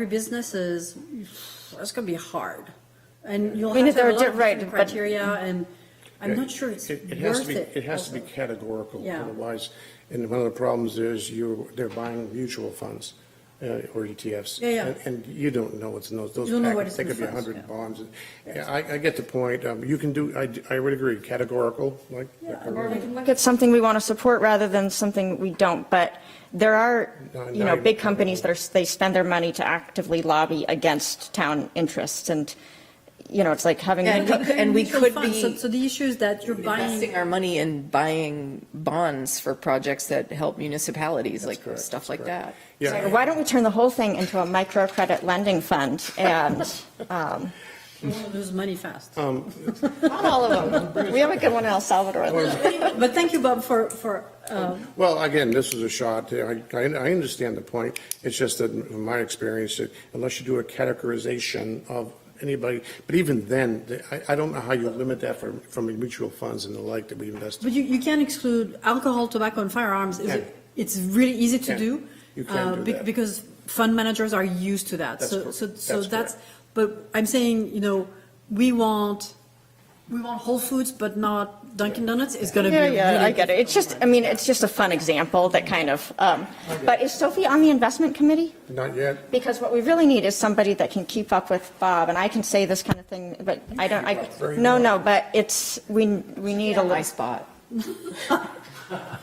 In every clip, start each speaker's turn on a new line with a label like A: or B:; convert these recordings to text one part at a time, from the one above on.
A: agribusiness is, that's gonna be hard. And you'll
B: I mean,
A: have to
B: there
A: have a
B: are
A: lot of
B: di- right,
A: different
B: but-
A: criteria, and I'm not sure it's
C: It it has
A: worth
C: to be,
A: it.
C: it has to be
A: also.
C: categorical,
A: Yeah.
C: otherwise, and one of the problems is you, they're buying mutual funds uh, or ETFs.
A: Yeah, yeah.
C: and- And you don't know what's in those, those
A: You don't know what
C: packets,
A: is
C: they
A: in the
C: could be a
A: funds,
C: hundred
A: yeah.
C: bonds. Yeah, I, I get the point, Um, you can do, I, I would agree, categorical, like.
B: Or we can look at something we want to support rather than something we don't, but there are,
C: No,
B: you
C: no,
B: know,
C: you-
B: big companies that are, they spend their money to actively lobby against town interests, and, you know, it's like having.
D: And we could- and we
A: Mutual
D: could
A: funds, so-
D: be
A: So the issue is that you're buying,
D: investing our money in buying bonds for projects that help municipalities, like
C: correct,
D: stuff
C: that's
D: like that.
C: correct. Yeah.
B: Why don't we turn the whole thing into a microcredit lending fund, and, um,
A: you will lose money fast.
C: Um,
B: not all of them. We have a good one in El Salvador.
A: But thank you, Bob, for, for, uh,
C: Well, again, this is a shot, I, I I understand the point, it's just that in my experience, that unless you do a categorization of anybody, but even then, the- I, I don't know how you limit that from, from mutual funds and the like that we invest.
A: but you, you can exclude alcohol, tobacco, and firearms. Is
C: Yeah.
A: it- It's really easy to
C: Yeah.
A: do.
C: You can
A: uh,
C: do
A: be-
C: that.
A: Because fund managers are used to that.
C: That's
A: So,
C: cor-
A: so, so
C: that's
A: that's,
C: correct.
A: but I'm saying, you know, we want, we want Whole Foods, but not Dunkin' Donuts. It's gonna be
B: Yeah,
A: really.
B: yeah, I get it. It's just, I mean, it's just a fun example that kind of, um, but is Sophie on the investment committee?
C: Not yet.
B: Because what we really need is somebody that can keep up with Bob, and I can say this kind of thing, but I don't, I,
C: keep up very
B: no, no,
C: well.
B: but it's, we, we need a,
D: My
B: li-
D: spot.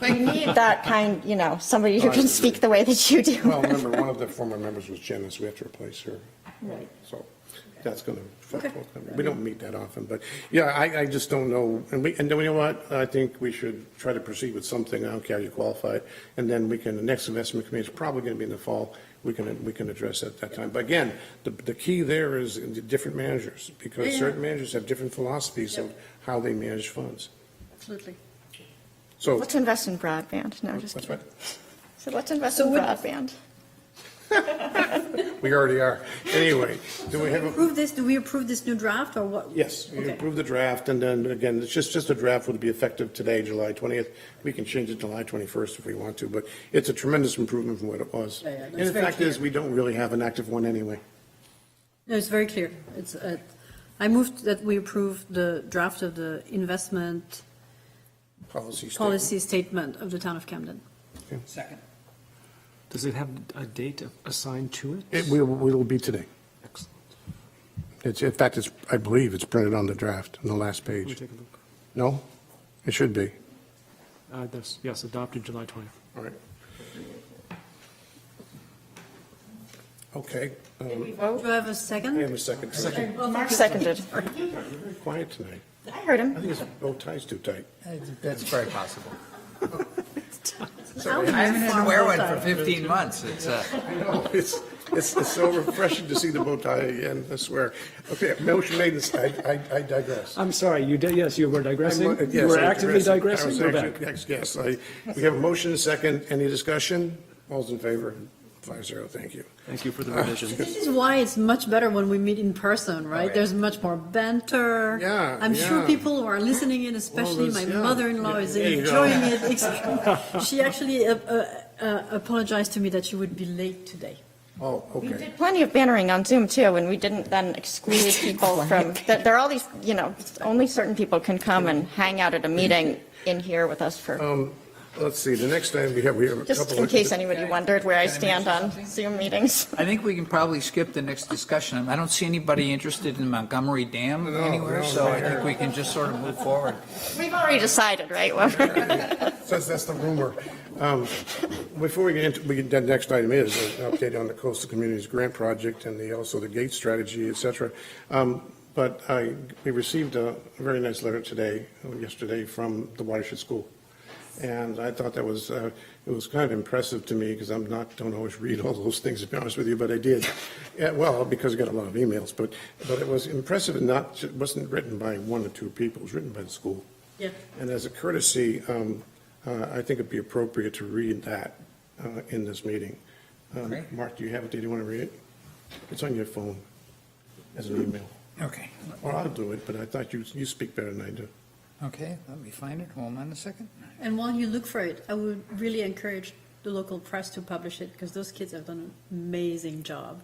B: we need that kind, you know, somebody who can speak the way that you
C: Well,
B: do.
C: remember, one of the former members was Jen, so we have to replace her. Right. So that's going to, we don't meet that often, but yeah, I, I just don't know. And we, and then you know what? I think we should try to proceed with something. I don't care how you qualify it. And then we can, the next investment committee is probably going to be in the fall. We can, we can address that at that time. But again, the, the key there is the different managers because certain managers have different philosophies of how they manage funds.
A: Absolutely.
C: So.
B: Let's invest in broadband, no, just
C: that's
B: kidding.
C: what-
B: So let's invest
A: So
B: in
A: what-
B: broadband.
C: We already are. Anyway, do we have a?
A: Approve this, do we approve this new draft or what?
C: Yes, you
A: Okay.
C: approve the draft, and then, again, it's just, just a draft would be effective today, July 20th. We can change it July 21st if we want to, but it's a tremendous improvement from what it was.
A: Yeah, yeah, that's
C: And the
A: very
C: fact is, we don't really have an active one anyway.
A: No, it's very clear. It's, uh, I moved that we approve the draft of the investment
C: Policy statement.
A: policy statement of the town of Camden.
E: Second. Does it have a date assigned to it?
C: It will, will be today.
E: Excellent.
C: It's, in fact, it's, I believe it's printed on the draft, on the last
E: Let me
C: page.
E: take a look.
C: No? It should be.
E: Uh, that's, yes, adopted July 20th.
C: All right. Okay. um,
A: Do I have a second?
C: I have a second. Second.
A: Well, thank you.
B: Oh. Seconded.
C: You're very quiet tonight.
B: I heard
C: I
B: him.
C: think his bow tie's too tight.
F: That's very possible.
A: How
F: I
A: do you
F: haven't had to
A: farm
F: wear
A: all
F: one for
A: time?
F: 15 months. It's, uh,
C: I know, it's, it's, it's so refreshing to see the bow tie again, I swear. Okay, motion made, this- I, I I digress.
E: I'm sorry, you did, yes, you were digressing.
C: I'm- uh, yes,
E: Uh, You were
C: I'm
E: actively
C: I
E: digressing,
C: was
E: go
C: actually-
E: back.
C: Yes, yes, I, we have a motion, and a second, any discussion? All's in favor, five zero, thank you.
E: Thank you for the revision.
A: This is why it's much better when we meet in person, right?
F: Right.
A: There's much more banter.
C: Yeah,
A: I'm sure
C: yeah.
A: people who are listening in, especially my
C: there's- yeah.
A: mother-in-law, is
C: There you go.
A: enjoying it. Ex- She actually uh, uh, uh, apologized to me that she would be late today.
C: Oh,
B: We
C: okay.
B: did plenty of bannering on Zoom too, and we didn't then exclude people from, that there are all these, you know, only certain people can come and hang out at a meeting in here with us for
C: Um, Let's see, the next time we have, we have a couple.
B: Just in case
C: of-
B: anybody wondered where I
F: Can I mention
B: stand on Zoom meetings.
F: I think we can probably skip the next discussion. I don't see anybody interested in Montgomery Dam
C: No,
F: anywhere,
C: no,
F: so I
C: no.
F: think we can just sort of move forward.
B: We've already decided, right? Well,
C: Says that's the rumor. Um, Before we get into, we, the next item is an update on the coastal communities grant project and the, also the gate strategy, et cetera. Um, But I, we received a very nice letter today, or yesterday, from the Watershed School. And I thought that was, uh, it was kind of impressive to me, because I'm not, don't always read all those things, to be honest with you, but I did. Yeah, Well, because I got a lot of emails, but, but it was impressive and not, it wasn't written by one or two people, it was written by the school.
A: Yeah.
C: And as a courtesy, um, uh, I think it'd be appropriate to read that uh, in this meeting. Um,
F: Okay.
C: Mark, do you have it? Do you want to read it? It's on your phone as an email.
F: Okay.
C: Or I'll do it, but I thought you, you speak better than I do.
F: Okay, let me find it. Hold on a second.
A: And while you look for it, I would really encourage the local press to publish it because those kids have done an amazing job.